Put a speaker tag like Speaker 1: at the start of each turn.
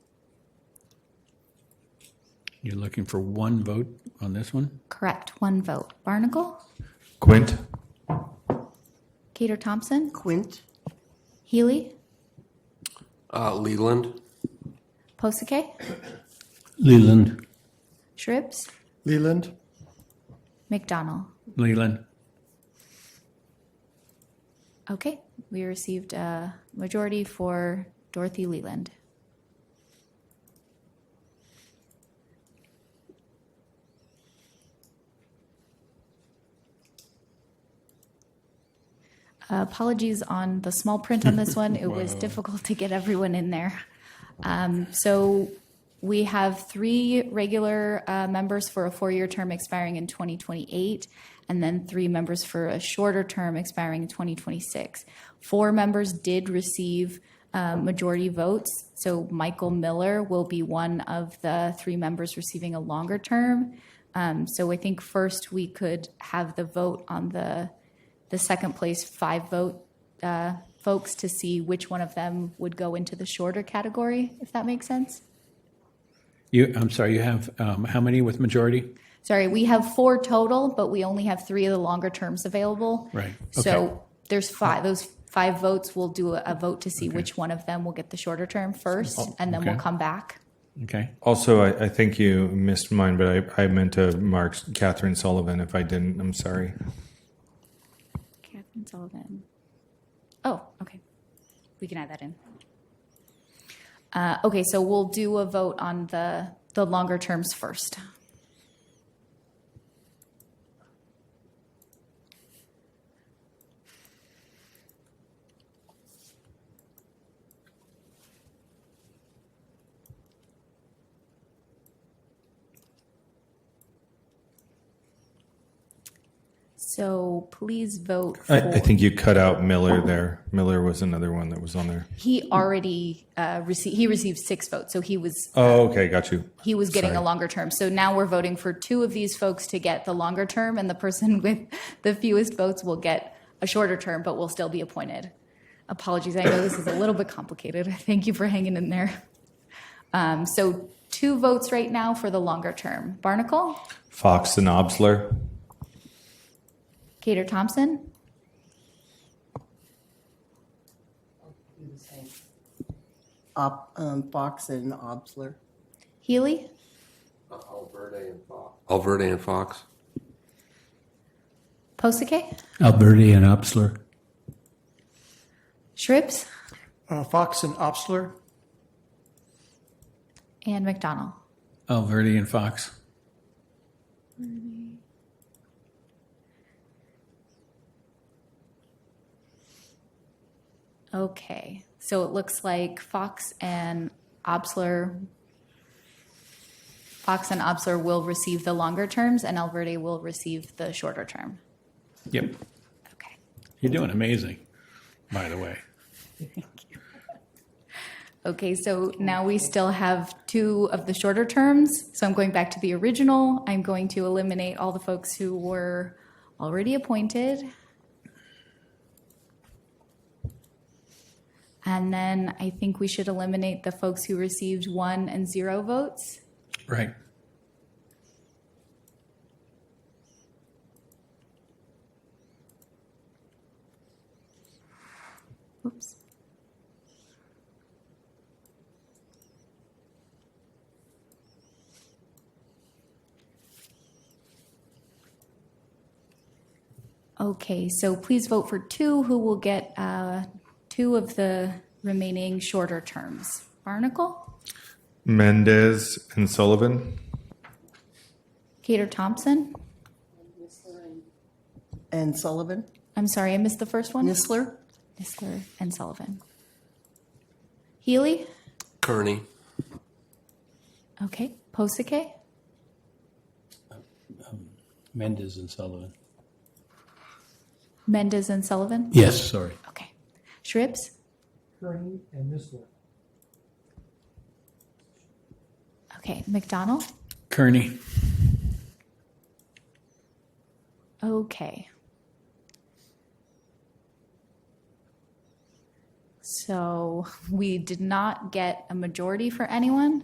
Speaker 1: You're looking for one vote on this one?
Speaker 2: Correct, one vote. Barnacle,
Speaker 3: Quint?
Speaker 2: Gator Thompson,
Speaker 4: Quint,
Speaker 2: Healy,
Speaker 5: Uh, Leland,
Speaker 2: Posake,
Speaker 1: Leland.
Speaker 2: Shribs,
Speaker 3: Leland?
Speaker 2: McDonald.
Speaker 1: Leland.
Speaker 2: Okay, we received a majority for Dorothy Leland. Apologies on the small print on this one. It was difficult to get everyone in there. Um, So we have three regular uh, members for a four-year term expiring in 2028, and then three members for a shorter term expiring in 2026. Four members did receive uh, majority votes, so Michael Miller will be one of the three members receiving a longer term. Um, So I think first, we could have the vote on the, the second place five vote uh, folks to see which one of them would go into the shorter category, if that makes sense.
Speaker 1: You, I'm sorry, you have, um, how many with majority?
Speaker 2: Sorry, we have four total, but we only have three of the longer terms available.
Speaker 1: Right, okay.
Speaker 2: So there's five, those five votes, we'll do a- a vote to see which one of them will get the shorter term first, and then we'll
Speaker 1: Oh, okay.
Speaker 2: come back.
Speaker 1: Okay.
Speaker 3: Also, I, I think you missed mine, but I, I meant to mark Catherine Sullivan. If I didn't, I'm sorry.
Speaker 2: Catherine Sullivan. Oh, okay. We can add that in. Uh, okay, so we'll do a vote on the, the longer terms first. So please vote for.
Speaker 3: I, I think you cut out Miller there. Miller was another one that was on there.
Speaker 2: He already uh, received, he received six votes, so he was,
Speaker 3: Oh, okay, got you.
Speaker 2: he was getting a
Speaker 3: Sorry.
Speaker 2: longer term. So now we're voting for two of these folks to get the longer term, and the person with the fewest votes will get a shorter term, but will still be appointed. Apologies, I know this is a little bit complicated. Thank you for hanging in there. Um, So two votes right now for the longer term. Barnacle,
Speaker 3: Fox and Obsler.
Speaker 2: Cater Thompson,
Speaker 4: Op, um, Fox and Obsler,
Speaker 2: Healy,
Speaker 5: Alverde and Fox. Alverde and Fox.
Speaker 2: Posake,
Speaker 1: Alberti and Opsler.
Speaker 2: Shribs,
Speaker 6: Uh, Fox and Obsler,
Speaker 2: and McDonald.
Speaker 1: Alberti and Fox.
Speaker 2: Okay, so it looks like Fox and Obsler, Fox and Obsler will receive the longer terms, and Alverde will receive the shorter term.
Speaker 1: Yep.
Speaker 2: Okay.
Speaker 1: You're doing amazing, by the way.
Speaker 2: Okay, so now we still have two of the shorter terms. So I'm going back to the original. I'm going to eliminate all the folks who were already appointed. And then I think we should eliminate the folks who received one and zero votes.
Speaker 1: Right.
Speaker 2: Oops. Okay, so please vote for two who will get uh, two of the remaining shorter terms. Barnacle,
Speaker 3: Mendez and Sullivan.
Speaker 2: Cater Thompson.
Speaker 4: and Sullivan,
Speaker 2: I'm sorry, I missed the first one.
Speaker 4: Nisler,
Speaker 2: Nisler and Sullivan. Healy,
Speaker 5: Kearney.
Speaker 2: okay. Posake,
Speaker 1: Mendez and Sullivan.
Speaker 2: Mendez and Sullivan.
Speaker 1: Yes, sorry.
Speaker 2: Okay. Shribs?
Speaker 6: Kearney and Nisler.
Speaker 2: Okay. McDonald?
Speaker 1: Kearney.
Speaker 2: Okay. So we did not get a majority for anyone.